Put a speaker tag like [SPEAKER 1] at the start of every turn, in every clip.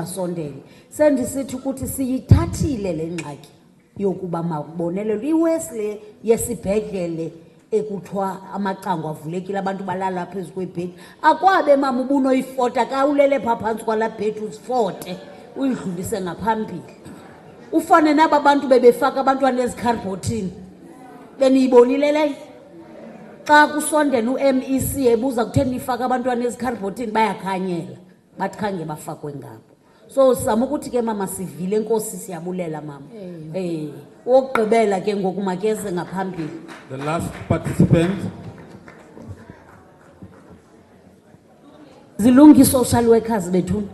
[SPEAKER 1] mabasondele sendisithi ukuthi siyithathile le ngxaki yokuba mabonelelwe iwesi yesibhedlele ekuthiwa amacango avulekile abantu balala phezu kwebhedi akwabe mama ubunoyifota ka ulele phaa phantsi kwalaa bhedi uzifote uyidlulise ngaphambili ufane naba bantu bebefaka abantwana ezikharibhothini beniyibonile leyo xa kusondela u-mec ebuza kutheni nifake abantwana ezikharibhothini bayakhanyela bathi khange bafakwe ngabo so sizama ukuthi ke mama sivile enkosi siyabulela mama um wokugqibela ke ngoku makeze ngaphambili
[SPEAKER 2] The last participant,
[SPEAKER 1] zilungi i-social workers bethuni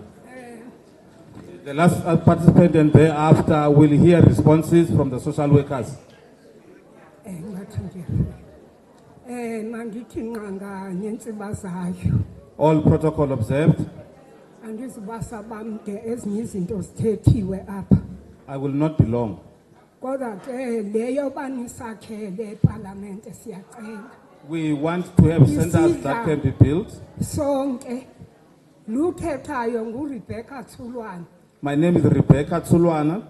[SPEAKER 2] the last uh, participant and thereafter will hear responses from the social workers.
[SPEAKER 3] Eh ngathi nje. Eh mangithi nqanga nentsiba zayo.
[SPEAKER 2] All protocol observed.
[SPEAKER 3] Andizibasa bamde ezinye izinto sithethiwe apha.
[SPEAKER 2] I will not be long.
[SPEAKER 3] Kodwa ke leyo banisakhele eParliament siyacela.
[SPEAKER 2] We want to have
[SPEAKER 3] You
[SPEAKER 2] centers
[SPEAKER 3] see
[SPEAKER 2] that
[SPEAKER 3] that?
[SPEAKER 2] can be built.
[SPEAKER 3] Sonke lukhethayo nguRebecca Thulwane
[SPEAKER 2] My name is Rebecca Tsulwana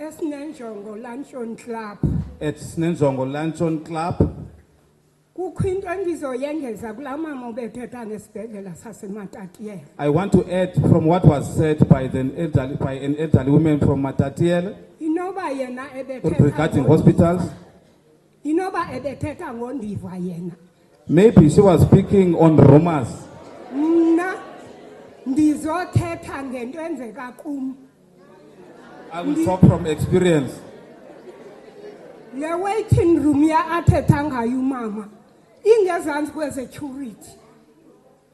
[SPEAKER 3] esinenjongo lanchon club.
[SPEAKER 2] at Snenzongo Lanchon Club.
[SPEAKER 3] Kukho into engizoyengeza kulaa mama ubethetha ngesibhedlela saseMatatiyela.
[SPEAKER 2] I want to add from what was said by, the elderly, by an elderly woman from Matatiele
[SPEAKER 3] Inoba yena ebethetha
[SPEAKER 2] regarding
[SPEAKER 3] ngo-
[SPEAKER 2] hospitals.
[SPEAKER 3] Inoba ebethetha ngondiva yena.
[SPEAKER 2] Maybe she was speaking on rumors.
[SPEAKER 3] Mna ndizothetha ngento enzeka kum.
[SPEAKER 2] I will talk from experience.
[SPEAKER 3] Le waiting room ya athetha ngayo umama ingezantsi kwezecurity.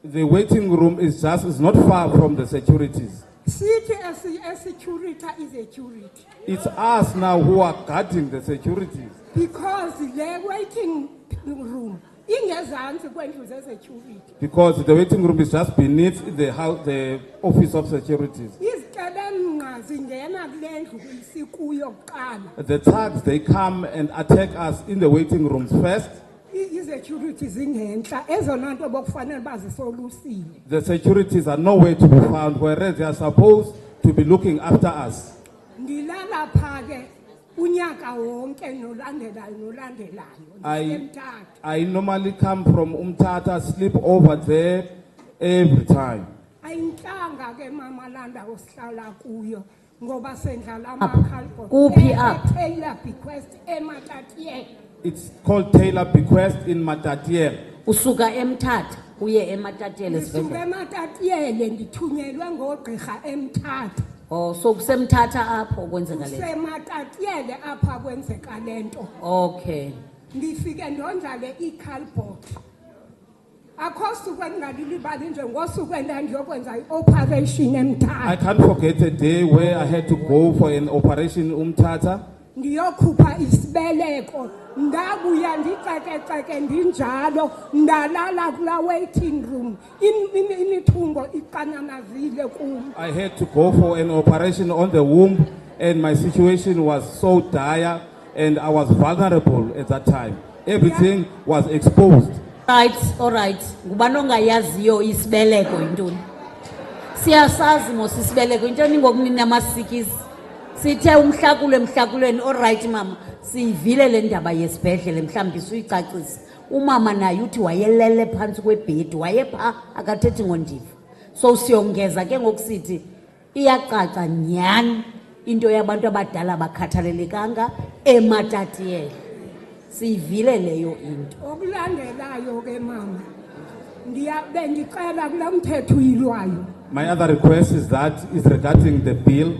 [SPEAKER 2] The waiting room is just is not far from the securities.
[SPEAKER 3] Sithi esi- esecurita izecurity
[SPEAKER 2] It's us now who are guarding the securities
[SPEAKER 3] because le waiting room ingezantsi kwendlu zezecurity.
[SPEAKER 2] because the waiting room is just beneath the house, the office of securities.
[SPEAKER 3] Izikebenqa zingena kule ndlu isikuyo kuqala.
[SPEAKER 2] The thugs they come and attack us in the waiting rooms first.
[SPEAKER 3] I- Izecurity zingentla ezona nto bokufanele bazisolusile.
[SPEAKER 2] The securities are nowhere to be found, whereas they are supposed to be looking after us.
[SPEAKER 3] Ndilala pha ke unyaka wonke nolandelayo nolandelayo.
[SPEAKER 2] I-
[SPEAKER 3] Ndisenthathu.
[SPEAKER 2] I normally come from Umtata, sleep over there every time.
[SPEAKER 3] Ayintlanga ke mama landa osihlala kuyo ngoba sendlala
[SPEAKER 1] Up.
[SPEAKER 3] amakhalibhosi.
[SPEAKER 1] Kuphi up?
[SPEAKER 3] Taylor bequest eMatatiyela.
[SPEAKER 2] It's called Taylor Bequest in Matatiele.
[SPEAKER 1] usuka emthatha uye ematatele
[SPEAKER 3] Ndisuke
[SPEAKER 1] esibhedlele
[SPEAKER 3] eMatatiyele ndithunyelwe ngoogqirha emthatha.
[SPEAKER 1] o Oh, so kusemthatha apho kwenzeka le
[SPEAKER 3] KuseMatatiyele apha kwenzeka le nto.
[SPEAKER 1] okay
[SPEAKER 3] ndifike ndondlale i-calbot akho suku endingalilibali nje ngosuku endandiyokwenza i-operation
[SPEAKER 2] I
[SPEAKER 3] emthatha
[SPEAKER 2] can't forget a day where I had to go for an operation in Umtata.
[SPEAKER 3] ndiyokhupha isibeleko ndabuya ndicekeceke ndinjalo ndalala kulaa waiting room Im- im- imithungo iqanamazile kum
[SPEAKER 2] I had to go for an operation on the womb, and my situation was so dire, and I was vulnerable at that time. Everything was exposed.
[SPEAKER 1] right allright ngubani ongayaziyo isibeleko yintoni siyasazi mos isibeleko intoni ngokuninamasikizi sithe umhlakulo emhlakulweni olrayithi mama siyivile le ndaba yesibhedlele mhlawumbi suyicacise umama naye uthi wayelele phantsi kwebhedi wayepha akathethi ngondiva so siyongeza ke ngokusithi iyacaca nyhani into yabantu abadala abakhathalelekanga ematatiyele siyivile leyo into
[SPEAKER 3] okulandelayo ke mama ndiya- bendicela kulaa mthetho uyilwayo
[SPEAKER 2] My other request is that is regarding the bill.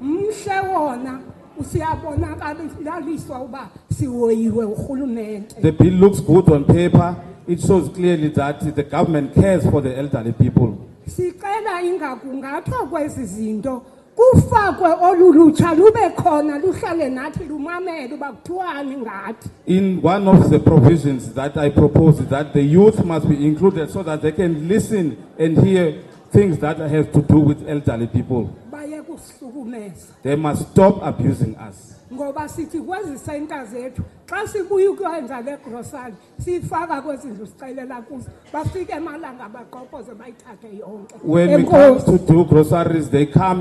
[SPEAKER 3] mhle wona usiyabonakaliswa uba siwoyiwe urhulumente
[SPEAKER 2] The bill looks good on paper. It shows clearly that the government cares for the elderly people.
[SPEAKER 3] sicela ingakungathwa kwezi zinto kufakwe olu lutsha lube khona luhlale nathi lumamele uba kuthiwani ngathi
[SPEAKER 2] In one of the provisions that I propose is that the youth must be included so that they can listen and hear things that have to do with elderly people.
[SPEAKER 3] baye kusihlukumeza
[SPEAKER 2] They must stop abusing us.
[SPEAKER 3] ngoba sithi kwezi senta zethu xa sibuye ukwenza le grosari siyifaka kwezi ndlu sicelela kuzo bafike emalanga baqopoze bayithathe yonke
[SPEAKER 2] When we come to
[SPEAKER 3] Enkosi.
[SPEAKER 2] do groceries, they come